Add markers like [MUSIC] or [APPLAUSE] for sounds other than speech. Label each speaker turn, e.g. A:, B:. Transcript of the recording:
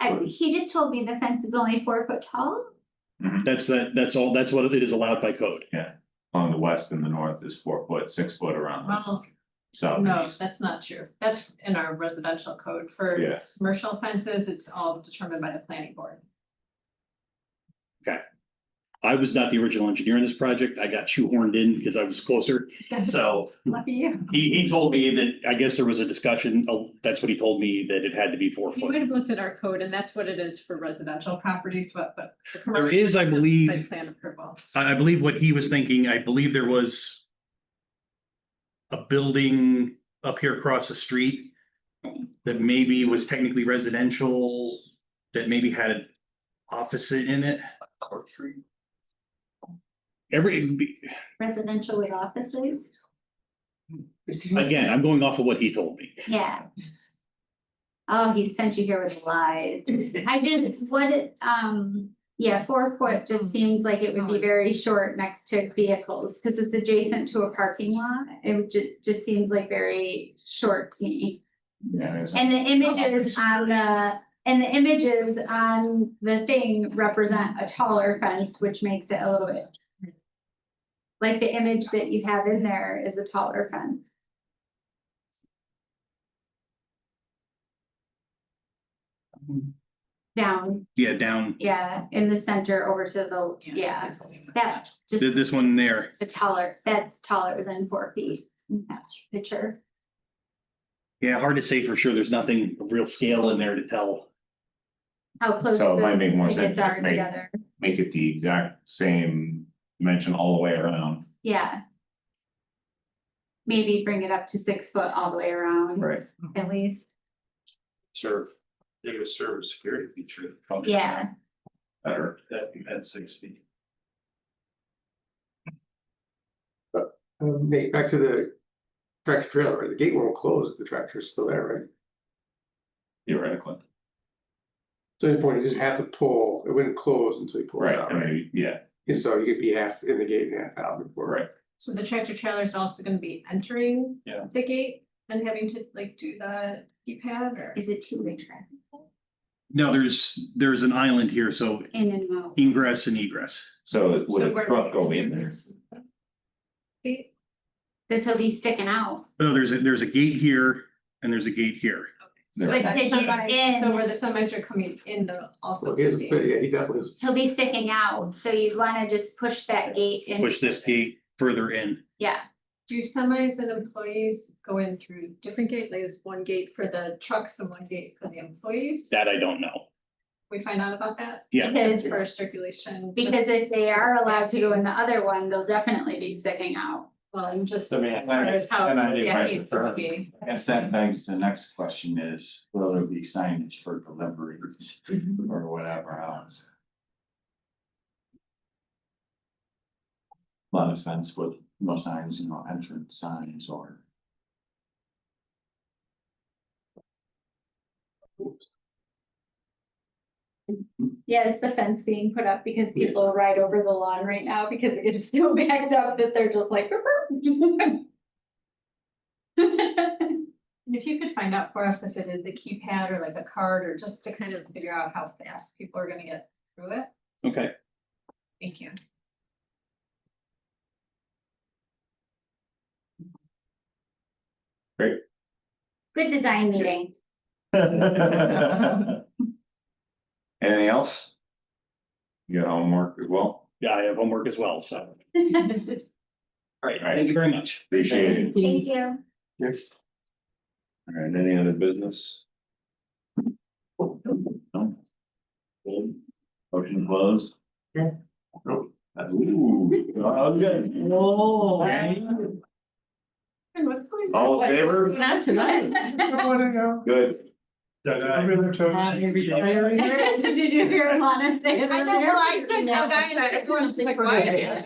A: I, he just told me the fence is only four foot tall.
B: That's that, that's all, that's what it is allowed by code.
C: on the west and the north is four foot, six foot around the
D: Well,
C: south and
D: no,
C: east.
D: that's not true. That's in our residential code for
C: Yeah,
D: commercial fences, it's all determined by the planning board.
B: I was not the original engineer in this project. I got shoehorned in because I was closer. So
D: [LAUGHS] Lucky you.
B: he, he told me that, I guess there was a discussion, oh, that's what he told me, that it had to be four
D: You
B: foot.
D: might have looked at our code and that's what it is for residential properties, but but. the
B: There
D: commercial
B: is, I
D: By
B: believe,
D: plan approval.
B: I, I believe what he was thinking, I believe there was a building up here across the street that maybe was technically residential, that maybe had an office in it. Every,
A: Residential with offices,
D: [LAUGHS]
B: Again, I'm going off of what he told me.
A: yeah. Oh, he sent you here with lies. I just, what, it- um, yeah, four foot just seems like it would be very short next to vehicles. Cause it's adjacent to a parking lot. It would ju- just seems like very short to me.
C: yeah, it's-
A: And the images on the, and the images on the thing represent a taller fence, which makes it a little bit. Like the image that you have in there is a taller fence. Down,
B: Yeah, down,
A: yeah, in the center over to the, yeah, that just
B: th- this one there.
A: a taller, that's taller than four feet. in that Picture,
B: Yeah, hard to say for sure. There's nothing of real scale in there to tell.
A: how close.
C: So it
A: the
C: might make more
A: pickets
C: sense to
A: are
C: make-
A: together.
C: Make it the exact same dimension all the way around.
A: Yeah. Maybe bring it up to six foot all the way around,
C: Right.
A: at least,
E: serve, they would serve a security feature.
B: Oh,
A: yeah,
C: Better,
E: That you had six feet.
F: Um, Nate, back to the tractor trailer, right? the gate won't close if the tractor's still there, right?
C: theoretically,
F: So the point is, you have to pull, it wouldn't close until you pull it
C: right,
F: out,
C: I
F: right?
C: mean, yeah,
F: And so you could be half in the gate and half out before.
C: right,
D: So the tractor trailer is also gonna be entering.
E: Yeah.
D: The gate and having to like do the keypad or.
A: is it two way traffic?
B: No, there's, there's an island here, so
A: In and out,
B: ingress and egress.
C: so would
D: So
C: a
D: where-
C: truck go in there?
D: Gate,
A: this will be sticking out,
B: No, there's, a there's a gate here and there's a gate here.
D: So
C: There.
D: like
A: Like,
D: the
A: take it
D: semi- so
A: in.
D: where the semis are coming in, they'll also.
F: So he has,
D: be-
F: yeah, he definitely is.
A: he'll be sticking out, so you'd wanna just push that gate in.
B: Push this gate further in.
A: Yeah,
D: Do semis and employees go in through different gate, like is one gate for the trucks and one gate for the employees?
B: That I don't know.
D: We find out about that?
B: Yeah.
D: Because for circulation.
A: because if they are allowed to go in the other one, they'll definitely be sticking out.
D: Well, I'm just.
E: I mean, and I-
D: There's how-
E: and I did
D: yeah,
E: my
D: it
E: preference.
D: would be.
G: Yes, that begs the next question is, will there be signage for deliveries or whatever else? Lot of fence with no signs, no entrance signs or.
A: Yeah, it's the fence being put up because people ride over the lawn right now because it gets so [LAUGHS] backed up that they're just like. [LAUGHS]
D: And If you could find out for us if it is a keypad or like a card or just to kind of figure out how fast people are gonna get through it,
B: Okay.
D: thank you.
A: Good design meeting.
C: Anything else? You got homework as well,
B: Yeah, I have homework as well, so.
A: [LAUGHS]
B: All
A: Thank
B: right, thank you very much.
C: appreciate it,
A: you.
C: all right, any other business? No? Motion closed?
F: Yeah.
C: Nope. Ooh, okay.
D: And what's going on?
C: All in favor?
H: Not tonight.
C: Good.
A: Did you hear Alana say it
H: I
A: on
H: know,
A: there? Oh,
D: [LAUGHS]
H: well, I said no, guys, everyone's like, why?